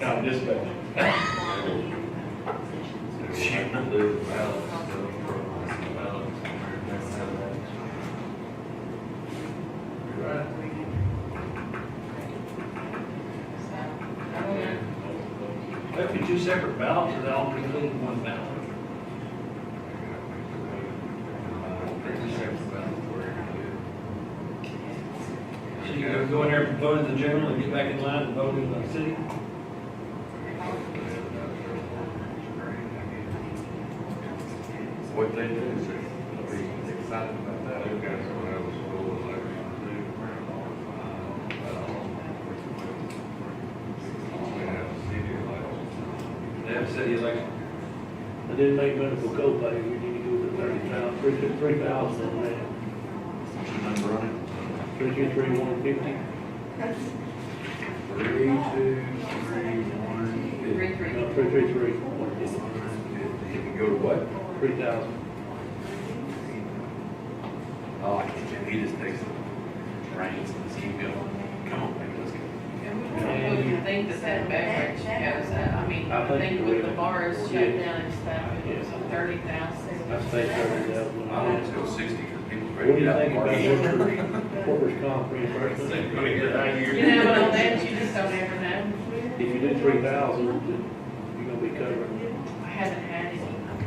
No, just go. Shoot, I lose the balance, so I'm gonna lost the balance. That's how that- You're right. That'd be two separate ballots, and I'll include in one ballot. Pretty safe balance where you're So you can go in there, and vote in the general, and get back in line and vote in the city? What they do is, uh, they be excited about that. They've got someone else who will let them do. uh, um, We have city elections. They have city election. I didn't make medical copay, we need to go to thirty thousand, three, three thousand on that. Three, two, three, one fifty, Three, two, three, one, fifty. Three, three. no, three, three, three, one fifty, You can go to what? three thousand. Oh, I can, he just takes the reins and just keep going. Come on, baby, let's go. Well, you think that that beverage goes up, I mean, I I think think you're with the right. bars shut Yeah. down and Yes. stuff, thirty thousand. I say thirty thousand. I What want to go sixty because people do ready to you get out. think and about party. workers, workers' comp They're reimbursement? gonna get out of You here. know, but on that, you just don't ever know, If you do three thousand, you're gonna be covering. I haven't had any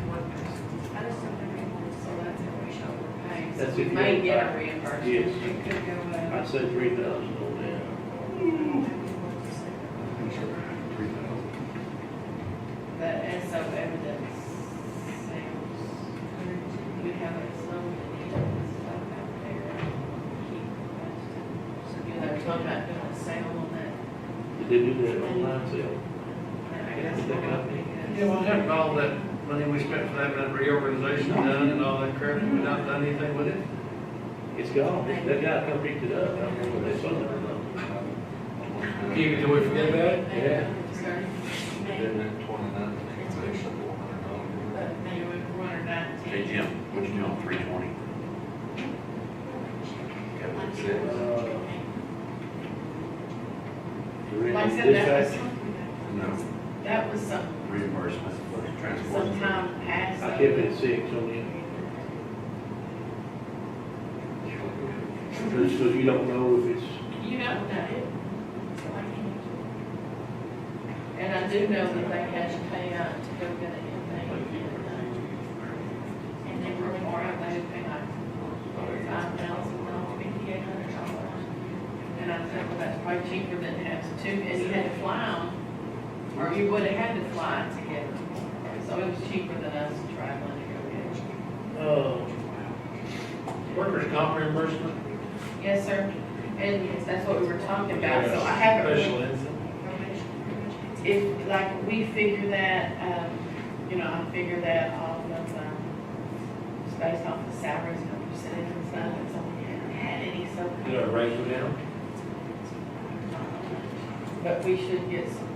workers, so that's how we shall pay. That's So we if you may don't get a buy. reimbursement. Yes. It could go I up. said three thousand on The S O evidence sales, we have a zone that needs stuff out there. Keep it. So, you know, they're talking about doing a sale on that that. Did they do that online sale? I guess the company. Yeah, well, have all that money we spent for that, that reorganization done and all that crap, and we not done anything with it? It's gone, that guy come picked it up, I don't know what they sold it or not. Keep it till we forget about it? Yeah. Then at twenty-nine, it's actually four hundred dollars. But they would run it out to- Hey, Jim, what you doing, three twenty? Got what it says. Like I said, that was, Dispatch, No, that was some, reimbursement for transport. some time past. I kept it at six on the, just so you don't know if it's, You know that it. And I do know that they had to pay out to go get it, and they, and they were more, they had to pay like five thousand dollars, fifty-eight hundred dollars. And I said, well, that's probably cheaper than to have two, and you had to fly 'em, or you would have had to fly to get them. So it was cheaper than us to try and to go get them. uh, Workers' comp reimbursement? Yes, sir, and yes, that's what we were talking about, so I haven't really Special incident. if, like, we figure that, um, you know, I figure that off of, um, it's based off the salaries and percentage and stuff, and so we haven't had any, so. Did our rates go down? But we should get some,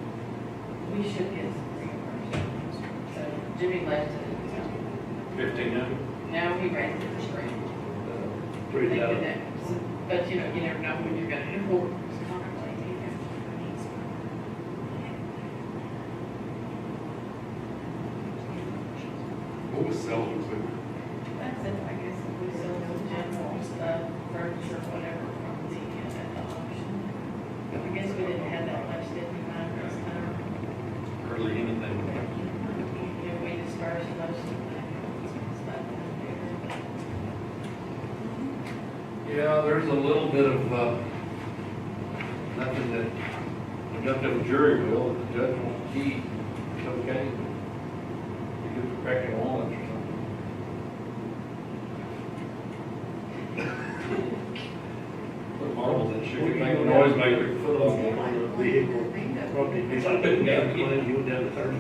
we should get some reimbursement. So Jimmy left it, so Fifteen hundred? now he raised it to three. three They did thousand. that. So- But, you know, you never know when you're gonna have workers' comp claim either. What was selling equipment? That's it, I guess, if we sell the general stuff, furniture, whatever, from the, uh, at the auction. I guess we didn't have that much, did we, Mike, this time? Hardly anything. Yeah, we dispersed most of that stuff out there. Yeah, there's a little bit of, uh, nothing that, we got to the jury will, the judge won't key, it's okay. You could crack it on or something. Put marbles in sugar, make a noise maker, put Foot on. on the vehicle, probably, if I couldn't get a plan, you went down to thirty,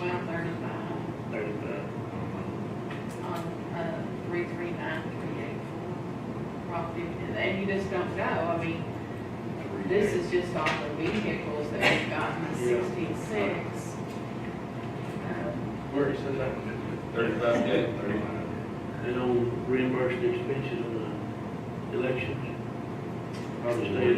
Well, thirty-five thirty-five. on, uh, three, three, nine, three, eight, four, property, and- and you just don't know, I mean, this is just off the vehicles that we've gotten, sixty-six. Um, Where it says that? Thirty-five day, thirty-five. And on reimbursed expenses on the elections, or the state